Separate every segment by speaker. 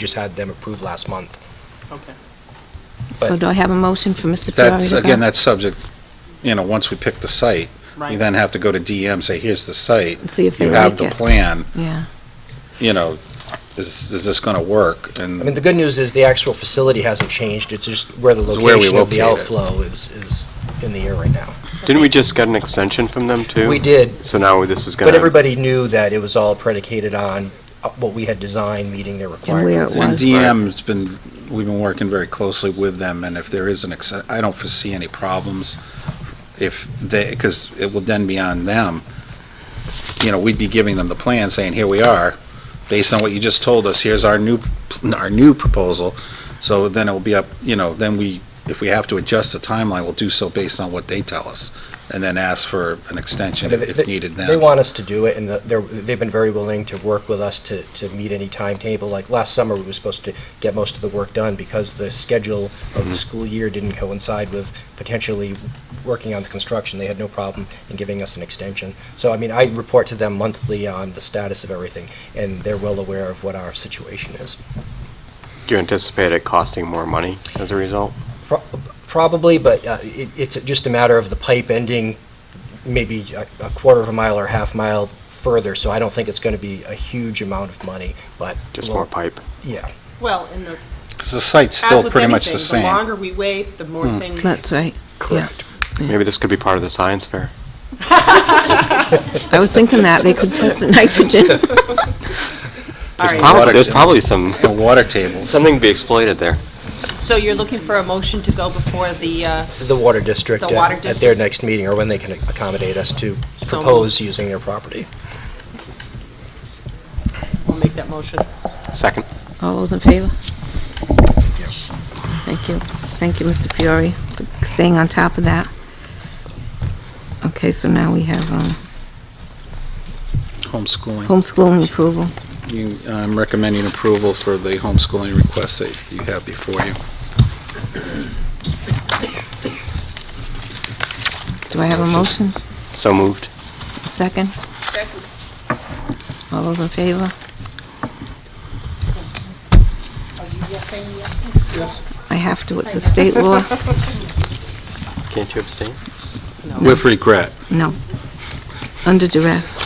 Speaker 1: just had them approved last month.
Speaker 2: Okay.
Speaker 1: But-
Speaker 3: So do I have a motion for Mr. Ferrari
Speaker 4: That's,
Speaker 3: to go?
Speaker 4: again, that's subject, you know, once we pick the site, we
Speaker 2: Right.
Speaker 4: then have to go to DM, say, here's the site.
Speaker 3: And see if they
Speaker 4: You have
Speaker 3: like
Speaker 4: the
Speaker 3: it.
Speaker 4: plan,
Speaker 3: Yeah,
Speaker 4: you know, is, is this gonna work?
Speaker 1: I mean,
Speaker 4: And
Speaker 1: the good news is the actual facility hasn't changed, it's just where the
Speaker 4: It's where we
Speaker 1: location of the
Speaker 4: locate it.
Speaker 1: outflow is, is in the air right now.
Speaker 5: Didn't we just get an extension from them, too?
Speaker 1: We did,
Speaker 5: So now this is gonna...
Speaker 1: but everybody knew that it was all predicated on uh, what we had designed, meeting their
Speaker 3: and where it
Speaker 1: requirements.
Speaker 4: and
Speaker 3: was.
Speaker 4: DM's been, we've been working very closely with them, and if there is an, exce- I don't foresee any problems if they, because it will then be on them. You know, we'd be giving them the plan, saying, here we are, based on what you just told us, here's our new, our new proposal. So then it will be up, you know, then we, if we have to adjust the timeline, we'll do so based on what they tell us, and then ask for an extension if if needed then.
Speaker 1: They want us to do it, and the- they're, they've been very willing to work with us to, to meet any timetable. Like, last summer, we were supposed to get most of the work done because the schedule of
Speaker 4: Mm-hmm.
Speaker 1: the school year didn't coincide with potentially working on the construction. They had no problem in giving us an extension. So, I mean, I report to them monthly on the status of everything, and they're well aware of what our situation is.
Speaker 5: Do you anticipate it costing more money as a result?
Speaker 1: Pro- Probably, but uh, it- it's just a matter of the pipe ending maybe a a quarter of a mile or half mile further, so I don't think it's going to be a huge amount of money, but.
Speaker 5: Just
Speaker 1: we'll-
Speaker 5: more pipe?
Speaker 1: Yeah.
Speaker 2: Well, and the,
Speaker 4: 'Cause the site's
Speaker 2: as
Speaker 4: still
Speaker 2: with
Speaker 4: pretty much the
Speaker 2: anything,
Speaker 4: same. Hmm.
Speaker 2: the longer we wait, the more things.
Speaker 3: That's right. Correct.
Speaker 5: Maybe this could be part of the science fair.
Speaker 3: I was thinking that, they could test the nitrogen.
Speaker 2: All
Speaker 5: There's
Speaker 2: right,
Speaker 5: probably, there's probably some,
Speaker 4: The water tables.
Speaker 5: something to be exploited there.
Speaker 2: so you're looking for a motion to go before the, uh,
Speaker 1: The water district.
Speaker 2: The
Speaker 1: uh,
Speaker 2: water
Speaker 1: At their
Speaker 2: district.
Speaker 1: next meeting, or when they can accommodate us to
Speaker 2: So moved.
Speaker 1: propose using their property.
Speaker 2: we'll make that motion.
Speaker 5: Second.
Speaker 3: All those in favor? Thank you. Thank you, Mr. Fiore, for staying on top of that. Okay, so now we have um,
Speaker 4: Homeschooling.
Speaker 3: homeschooling approval.
Speaker 4: You, I'm recommending approval for the homeschooling request that you have before you.
Speaker 3: Do I have a motion?
Speaker 5: So moved.
Speaker 3: Second? All those in favor? I have to, it's a state law.
Speaker 5: Can't you abstain?
Speaker 4: With regret.
Speaker 3: No. Under duress.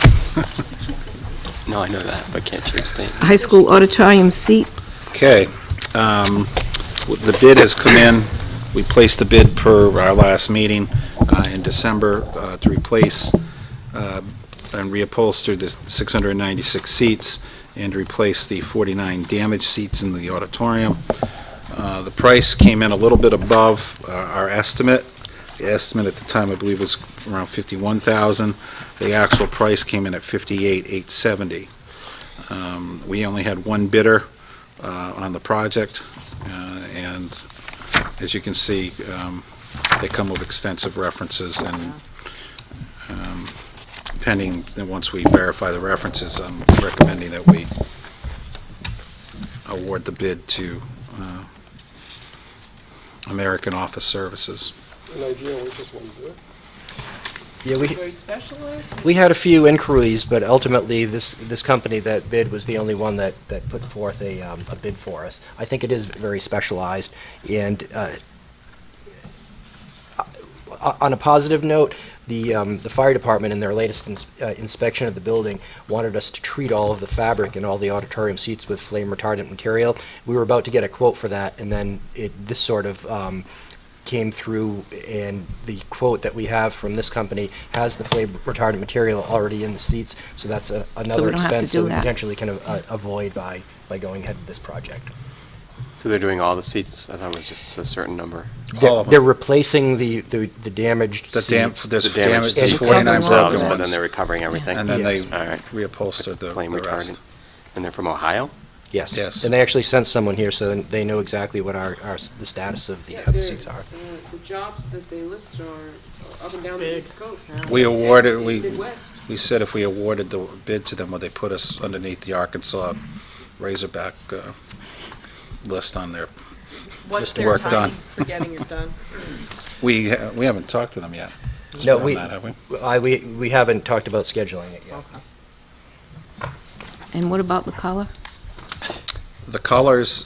Speaker 5: No, I know that, but can't you abstain?
Speaker 3: High school auditorium seats.
Speaker 4: Okay. um, w- The bid has come in. We placed the bid per our last meeting uh, in December uh, to replace uh, and reupholster the 696 seats and to replace the 49 damaged seats in the auditorium. Uh, The price came in a little bit above uh, our estimate. The estimate at the time, I believe, was around 51,000. The actual price came in at 58,870. Um, We only had one bidder uh, on the project, uh, and as you can see, um, they come with extensive references, and um, pending, and once we verify the references, I'm recommending that we award the bid to uh, American Office Services.
Speaker 6: an idea, we just wouldn't do it.
Speaker 1: Yeah, we,
Speaker 2: Very specialized?
Speaker 1: we had a few inquiries, but ultimately, this, this company that bid was the only one that, that put forth a, um, a bid for us. I think it is very specialized, and, uh, o- on a positive note, the, um, the fire department in their latest ins- uh, inspection of the building wanted us to treat all of the fabric and all the auditorium seats with flame retardant material. We were about to get a quote for that, and then it, this sort of, um, came through, and the quote that we have from this company has the flame retardant material already in the seats, so that's a- another
Speaker 3: don't have to
Speaker 1: expense
Speaker 3: do
Speaker 1: that we
Speaker 3: that.
Speaker 1: potentially can a- a- avoid by, by going ahead with this project.
Speaker 5: So they're doing all the seats? I thought it was just a certain number.
Speaker 4: All
Speaker 1: They're
Speaker 4: of
Speaker 1: they're
Speaker 4: them.
Speaker 1: replaced the, the the damaged
Speaker 4: The dam,
Speaker 1: seats.
Speaker 4: there's
Speaker 5: The damaged
Speaker 4: damage, there's
Speaker 5: seats
Speaker 4: 49
Speaker 3: Cover
Speaker 5: themselves,
Speaker 4: broken
Speaker 3: walls.
Speaker 5: But then
Speaker 4: ones,
Speaker 5: they're recovering everything?
Speaker 4: and then they
Speaker 5: All right.
Speaker 4: reupholstered the
Speaker 5: Flame
Speaker 4: the rest.
Speaker 5: retardant. And they're from Ohio?
Speaker 1: Yes.
Speaker 4: Yes.
Speaker 1: And they actually sent someone here, so then they know exactly what our, our, s- the status of the
Speaker 7: Yeah,
Speaker 1: of the
Speaker 7: they're-
Speaker 1: seats are.
Speaker 7: uh, The jobs that they list are uh, up and down the
Speaker 2: Big.
Speaker 7: East Coast.
Speaker 4: We
Speaker 7: And
Speaker 4: awarded- we-
Speaker 7: Midwest.
Speaker 4: We said if we awarded the bid to them, would they put us underneath the Arkansas Razorback uh, list on there?
Speaker 2: What's
Speaker 4: Just
Speaker 2: their
Speaker 4: work done.
Speaker 2: time for getting it done?
Speaker 4: We, ha- we haven't talked to them yet.
Speaker 1: No,
Speaker 4: on
Speaker 1: we,
Speaker 4: that, have we?
Speaker 1: I, we, we haven't talked about scheduling it yet.
Speaker 3: And what about the color?
Speaker 4: the colors